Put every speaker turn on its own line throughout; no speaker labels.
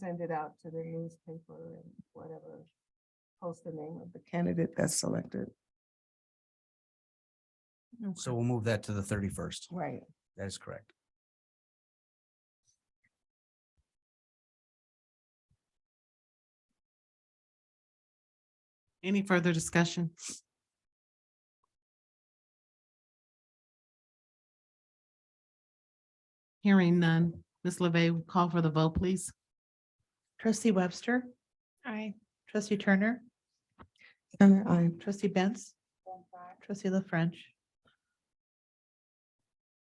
send it out to the newspaper and whatever. Post the name of the candidate that's selected.
So we'll move that to the thirty-first.
Right.
That is correct.
Any further discussion? Hearing none. Ms. LeVey, will call for the vote, please.
Trustee Webster. Aye. Trustee Turner.
Turner, I.
Trustee Benz. Trustee La French.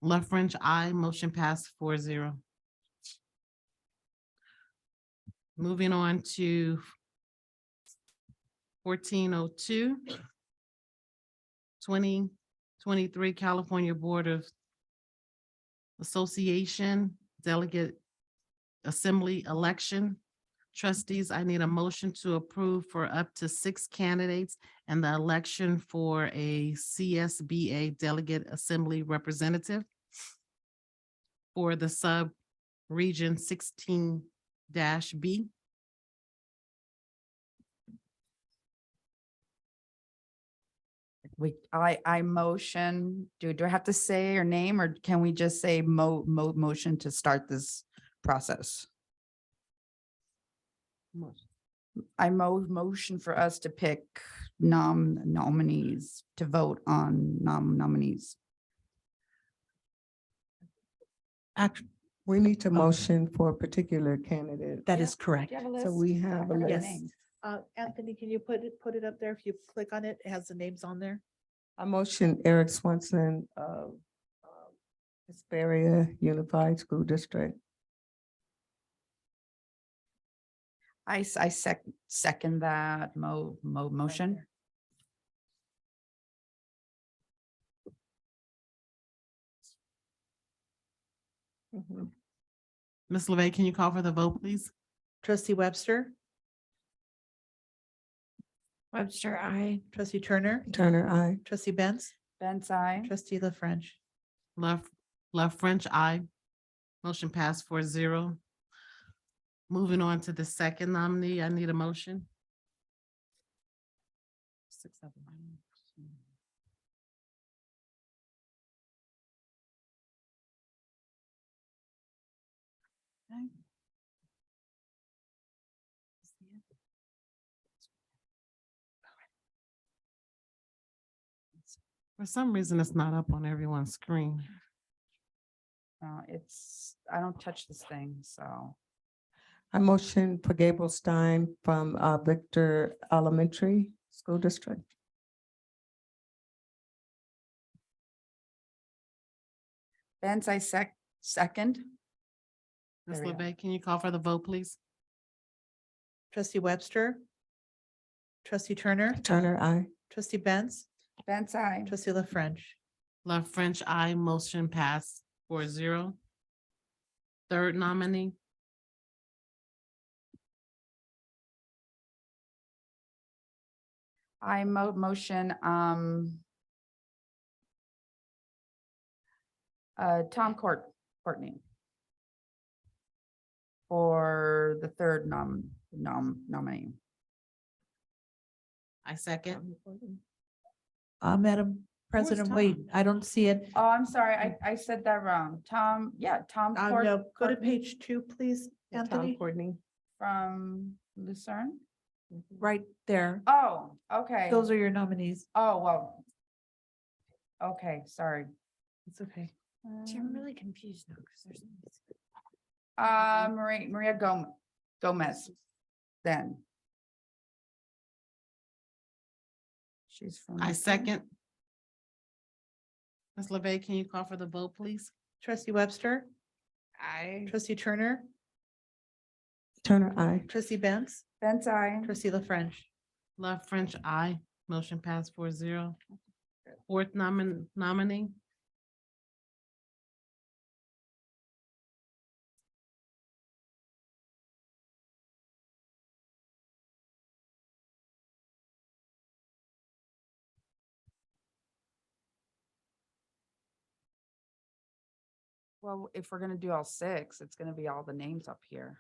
La French, I motion pass four zero. Moving on to fourteen oh two. Twenty twenty-three California Board of Association Delegate Assembly Election. Trustees, I need a motion to approve for up to six candidates and the election for a CSBA Delegate Assembly Representative for the sub-region sixteen B.
We, I, I motion, do, do I have to say your name or can we just say mo, mo, motion to start this process? I mo, motion for us to pick nom, nominees, to vote on nom, nominees.
We need to motion for a particular candidate.
That is correct.
So we have a
Yes.
list.
names. Uh, Anthony, can you put it, put it up there? If you click on it, it has the names on there.
I motion Eric Swenson of um, Hesperia Unified School District.
I, s- I sec, second that mo, mo, motion.
Mm-hmm.
Ms. LeVey, can you call for the vote, please?
Trustee Webster.
Webster, I.
Trustee Turner.
Turner, I.
Trustee Benz.
Benz, I.
Trustee La French.
Love, Love French, I. Motion passed four zero. Moving on to the second nominee, I need a motion. Six of them. Okay. For some reason, it's not up on everyone's screen.
Uh, it's, I don't touch this thing, so.
I motion for Gabriel Stein from uh, Victor Elementary School District.
Benz, I sec, second.
Ms.
There we go.
LeVey, can you call for the vote, please?
Trustee Webster. Trustee Turner.
Turner, I.
Trustee Benz.
Benz, I.
Trustee La French.
Love French, I motion pass four zero. Third nominee,
I mo- motion, um. Uh, Tom Court, Courtney. For the third nom, nom, nominee.
I second.
Uh, Madam
Where's
President, wait,
Tom?
I don't see it.
Oh, I'm sorry, I, I said that wrong. Tom, yeah, Tom
Uh,
Court
no, go to
Courtney
page two, please,
Tom
Anthony.
Courtney.
from Lucerne.
Right there.
Oh, okay.
Those are your nominees.
Oh, well. Okay, sorry.
It's okay.
See, I'm really confused now because there's. no music.
Uh, Maria, Maria Gomez, Gomez, then. She's from.
I
Lucerne.
second. Ms. LeVey, can you call for the vote, please?
Trustee Webster,
I.
trustee Turner,
Turner, I.
trustee Benz,
Benz, I.
trustee La French.
Love French, I motion pass four zero. Fourth nomin- nominee,
Well, if we're gonna do all six, it's gonna be all the names up here.